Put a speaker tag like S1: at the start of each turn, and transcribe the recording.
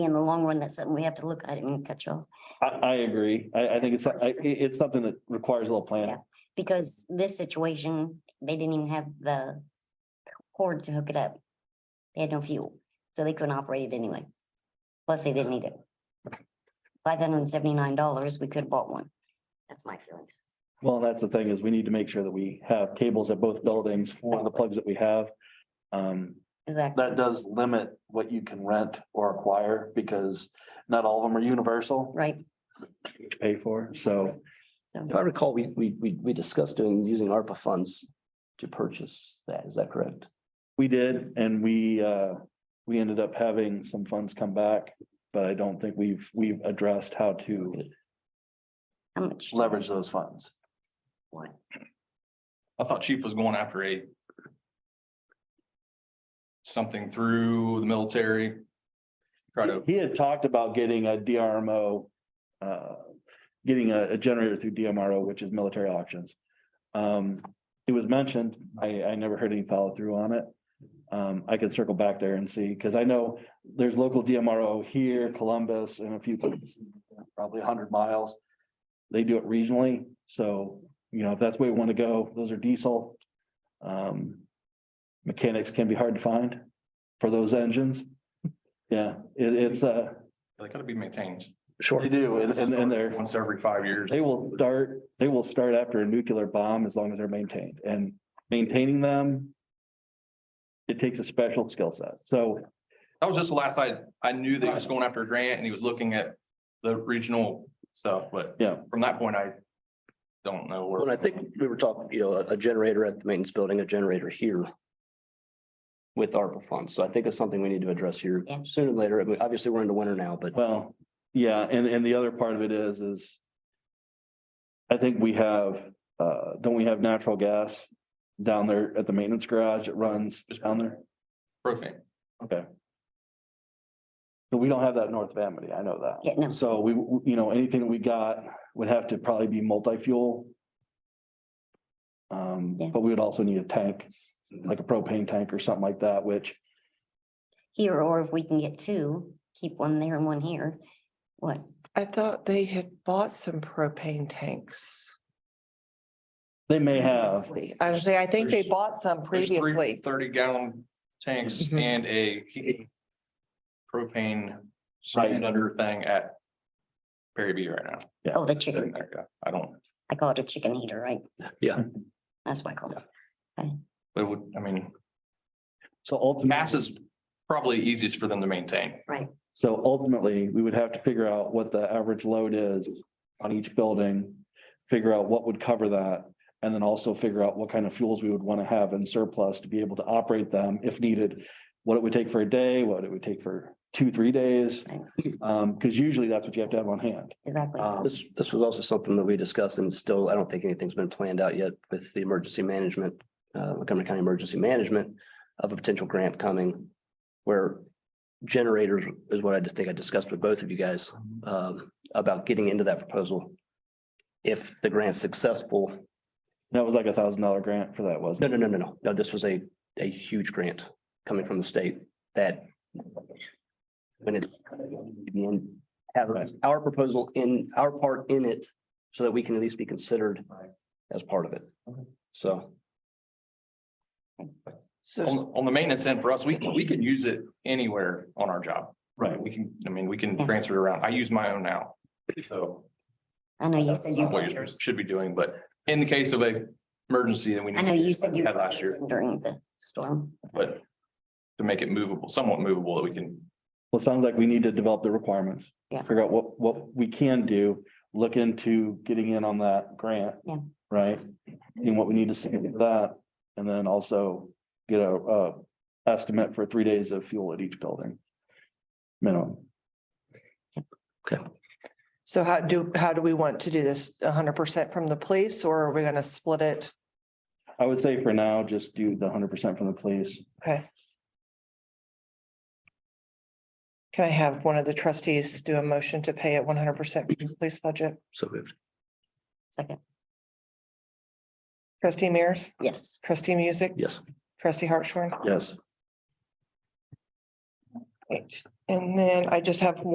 S1: in the long run, that's something we have to look at in Cutro.
S2: I, I agree. I, I think it's, I, it's something that requires a little planning.
S1: Because this situation, they didn't even have the cord to hook it up. They had no fuel, so they couldn't operate it anyway. Plus, they didn't need it. Five hundred and seventy-nine dollars, we could have bought one. That's my feelings.
S2: Well, and that's the thing is we need to make sure that we have cables at both buildings for the plugs that we have. Um,
S1: Exactly.
S2: that does limit what you can rent or acquire because not all of them are universal
S1: Right,
S2: to pay for. So
S1: so,
S3: If I recall, we, we, we, we discussed doing, using ARPA funds to purchase that. Is that correct?
S2: we did and we, uh, we ended up having some funds come back, but I don't think we've, we've addressed how to
S1: how much?
S2: leverage those funds.
S4: I thought chief was going after a. Something through the military. Try to,
S2: He had talked about getting a DRMO, uh, getting a, a generator through DMRO, which is military auctions. Um, it was mentioned, I, I never heard any follow through on it. Um, I could circle back there and see, because I know there's local DMRO here, Columbus, and a few places, probably a hundred miles. They do it regionally, so, you know, if that's where we want to go, those are diesel. Um, mechanics can be hard to find for those engines. Yeah, it, it's, uh,
S4: they gotta be maintained.
S2: they do, and, and and they're,
S4: Once every five years.
S2: they will start, they will start after a nuclear bomb as long as they're maintained and maintaining them. It takes a special skill set. So
S4: That was just the last I, I knew that he was going after a grant and he was looking at the regional stuff, but.
S2: Yeah.
S4: From that point, I don't know where.
S3: Well, I think we were talking, you know, a a generator at the maintenance building, a generator here with ARPA funds. So I think it's something we need to address here
S1: Yeah.
S3: sooner or later. I mean, Obviously, we're into winter now, but
S2: Well, yeah, and, and the other part of it is, is I think we have, uh, don't we have natural gas down there at the maintenance garage? It runs down there.
S4: Propane.
S2: Okay. So we don't have that in North Vanity. I know that.
S1: Yeah, no.
S2: So we, you know, anything we got would have to probably be multi-fuel. Um,
S1: Yeah.
S2: but we would also need a tank, like a propane tank or something like that, which
S1: Here, or if we can get two, keep one there and one here. What?
S5: I thought they had bought some propane tanks.
S2: they may have.
S5: previously. I was saying, I think they
S4: There's-
S5: bought some
S4: There's three
S5: previously.
S4: Thirty gallon tanks
S2: Mm-hmm.
S5: Mhm.
S4: and a heat propane cylinder thing at Perry B right now.
S1: Oh, the
S4: Sitting
S1: chicken.
S4: there, yeah. I don't,
S1: I call it a chicken heater, right?
S3: Yeah.
S1: That's what I call it.
S4: it would, I mean.
S2: So ultimately,
S4: Mass is probably easiest for them to maintain.
S2: so ultimately, we would have to figure out what the average load is on each building. Figure out what would cover that and then also figure out what kind of fuels we would want to have in surplus to be able to operate them if needed. What it would take for a day, what it would take for two, three days. Um, because usually that's what you have to have on hand.
S1: Exactly.
S4: Uh,
S2: Um,
S3: this, this was also something that we discussed and still, I don't think anything's been planned out yet with the emergency management, uh, Montgomery County Emergency Management of a potential grant coming where generators is what I just think I discussed with both of you guys, um, about getting into that proposal. If the grant's successful,
S2: That was like a thousand dollar grant for that, wasn't
S3: No,
S2: it?
S3: no, no, no, no. No, this was a, a huge grant coming from the state that when it, in, have our proposal in, our part in it, so that we can at least be considered as part of it. So,
S4: On,
S5: So
S4: on the maintenance end for us, we can, we can use it anywhere on our job.
S2: Right.
S4: We can, I mean, we can transfer it around. I use my own now. So
S1: I know
S4: uh,
S1: you said you.
S4: what
S1: brought
S4: you
S1: yours.
S4: should be doing, but in the case of a emergency that we.
S1: I know you said you
S4: Had
S1: brought
S4: last
S1: yours
S4: year,
S1: in during the storm.
S4: but to make it movable, somewhat movable, that we can,
S2: Well, it sounds like we need to develop the requirements.
S1: Yeah.
S2: Figure out what, what we can do, look into getting in on that grant.
S1: Yeah.
S2: Right? And what we need to see with that, and then also get a, uh, estimate for three days of fuel at each building. Minimum.
S5: so how do, how do we want to do this? hundred percent from the police or are we gonna split it?
S2: I would say for now, just do the hundred percent from the police.
S5: Okay. Can I have one of the trustees do a motion to pay it one hundred percent from the police budget?
S3: so moved.
S1: Second,
S5: Trustee Mears,
S1: yes.
S5: trustee Music,
S3: Yes.
S5: trustee Hartshorn,
S2: Yes.
S5: And then I just have